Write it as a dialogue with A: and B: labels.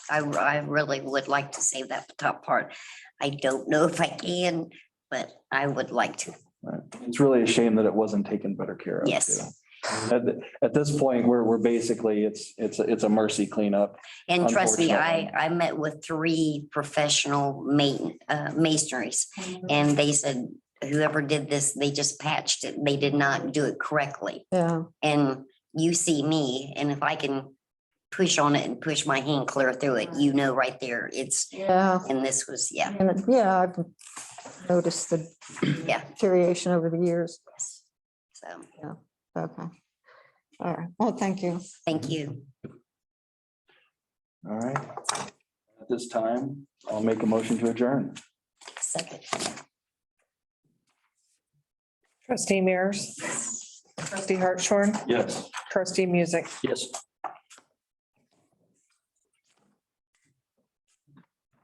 A: I, I really would like to save that top part. I don't know if I can, but I would like to.
B: It's really a shame that it wasn't taken better care of. too.
A: Yes.
B: At, th- at this point, we're, we're basically, it's, it's, a- it's a mercy cleanup.
A: And trust me, I,
B: Unfortunately.
A: I met with three professional main, uh, masonries and they said whoever did this, they just patched it. They did not do it correctly.
C: Yeah,
A: And you see me and if I can push on it and push my hand clear through it, you know right there, it's,
C: yeah.
A: and this was, yeah.
C: And it- yeah, I've noticed the
A: Yeah.
C: deterioration over the years.
A: So,
C: Okay. All right. Well, thank you.
A: thank you.
B: All right. At this time, I'll make a motion to adjourn.
A: Second.
D: Trustee Mears. Trustee Hartshorn.
B: Yes.
D: Trustee Music.
B: Yes.